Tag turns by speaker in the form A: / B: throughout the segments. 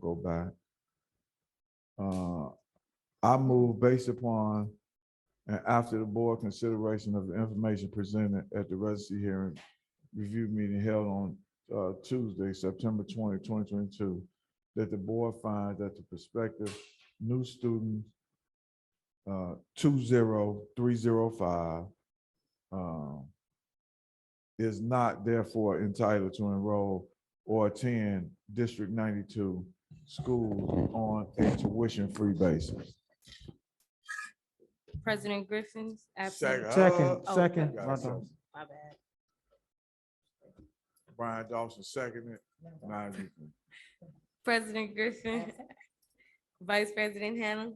A: go back. Uh, I move based upon and after the board consideration of the information presented at the residency hearing review meeting held on uh, Tuesday, September 20, 2022, that the board finds that the prospective new student uh, two zero three zero five um, is not therefore entitled to enroll or attend District ninety-two schools on a tuition-free basis.
B: President Griffin's absent.
A: Second.
C: Second,
A: Oh,
C: second.
A: okay.
C: my bad.
B: My bad.
A: Brian Dawson seconded. Nine to zero.
B: President Griffin, Vice President Hannah,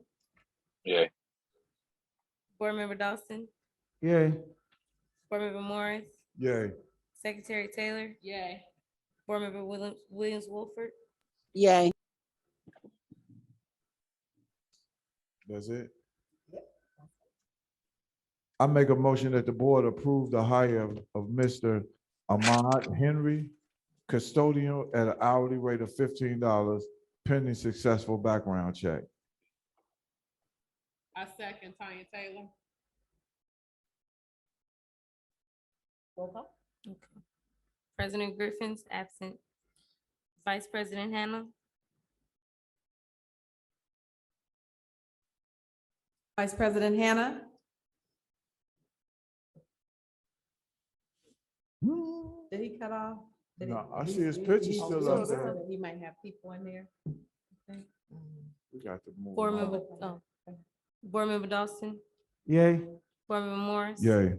D: Yay.
B: Board Member Dawson,
C: Yay,
B: Board Member Morris,
A: Yay,
B: Secretary Taylor. Yay. Board Member Williams, Williams Wolford.
E: Yay.
A: that's it? I make a motion that the board approve the hire of- of Mr. Ahmad Henry, custodian at an hourly rate of fifteen dollars pending successful background check.
F: I second Tanya Taylor.
B: President Griffin's absent. Vice President Hannah,
G: Vice President Hannah,
A: No,
G: did he cut off? Did he-
A: I see his picture
G: he-
A: still
G: he-
A: up there.
G: He might have people in there. I think.
A: We got to move
B: Board
A: on.
B: Member, oh, Board Member Dawson,
C: yay,
B: Board Member Morris.
A: Yay,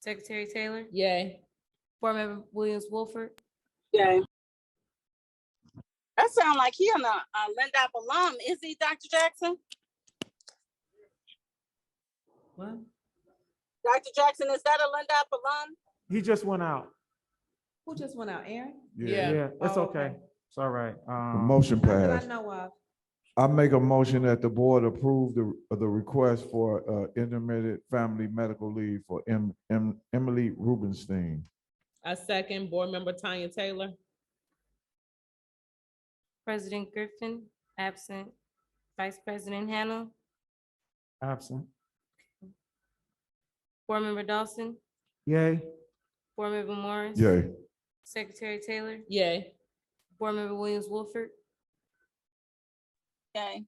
B: Secretary Taylor,
F: Yay.
B: Board Member Williams Wolford,
E: Yay. That sound like he and a a Lindop alum, is he, Dr. Jackson?
G: What?
E: Dr. Jackson, is that a Lindop alum?
C: he just went out.
G: Who just went out, Aaron?
A: yeah.
F: Yeah.
C: Yeah, it's
G: Oh,
C: okay. It's all right.
A: The
C: Um,
A: Motion
G: Not that
A: passed.
G: I know of.
A: I make a motion that the board approve the, uh, the request for uh, intermittent family medical leave for Em- Em- Emily Rubenstein.
F: I second Board Member Tanya Taylor.
B: President Griffin, absent. Vice President Hannah,
C: absent.
B: Board Member Dawson,
C: Yay,
B: Board Member Morris.
A: Yay,
B: Secretary Taylor,
F: Yay.
B: Board Member Williams Wolford,
E: Yay.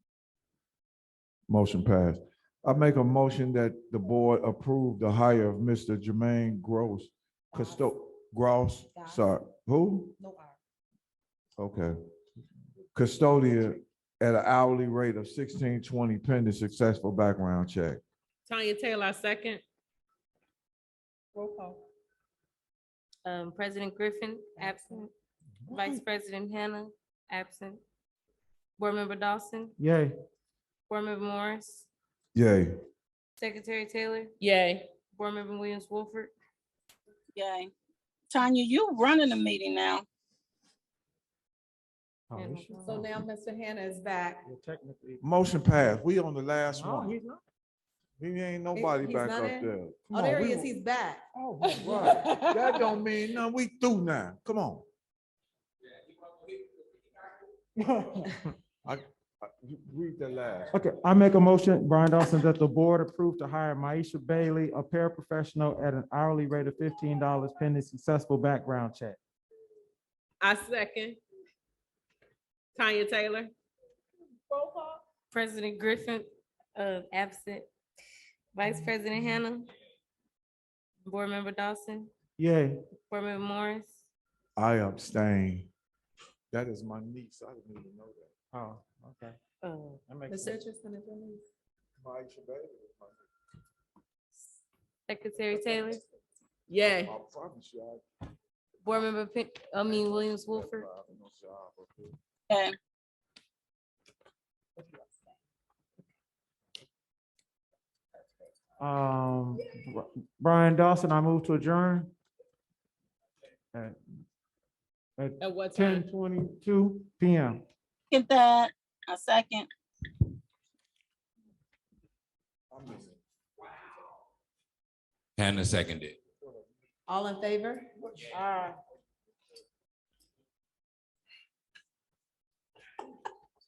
A: motion passed. I make a motion that the board approve the hire of Mr. Jermaine Gross, custo, Gross,
G: Goss.
A: sorry, who?
G: No R.
A: Okay. Custodian at an hourly rate of sixteen twenty pending successful background check.
F: Tanya Taylor, I second.
G: Roll call.
B: um, President Griffin, absent. Vice President Hannah, absent. Board Member Dawson,
C: yay,
B: Board Member Morris,
A: Yay,
B: Secretary Taylor,
F: Yay.
B: Board Member Williams Wolford,
E: Yay. Tanya, you running the meeting now.
C: Oh,
B: Yeah, no
C: he's-
B: problem.
G: So now Mr. Hannah is back.
C: Yeah, Technically.
A: motion passed. We on the last
C: No,
A: one.
C: he's not.
A: He ain't nobody
G: he's
A: back
G: not
A: up there.
G: in?
A: Come
G: Oh,
A: on,
G: there
A: we
G: he is,
A: wa-
G: he's back.
A: Oh, we right. That don't mean nothing. We through now. Come on. I, I, Uh, you read the last.
C: Okay, I make a motion, Brian Dawson, that the board approve to hire Maisha Bailey, a paraprofessional at an hourly rate of fifteen dollars pending successful background check.
F: I second. Tanya Taylor.
B: President Griffin, uh, absent. Vice President Hannah, Board Member Dawson,
C: Yay,
B: Board Member Morris,
A: I abstain. That is my niece. I didn't even know that.
C: oh, okay.
B: uh,
C: That makes
G: Mr.
C: sense.
G: Richardson is in.
A: Maisha Bailey is my niece.
B: Secretary Taylor,
F: Yay.
A: I promise you, I-
B: Board Member, Pe- I mean Williams Wolford,
A: I have no job up here.
E: Yay.
C: Um, Bri- Brian Dawson, I move to adjourn. At
F: At what
C: ten
F: time?
C: twenty-two PM.
E: Get that. A second.
A: I'm missing.
H: Hannah seconded.
G: All in favor? Aye.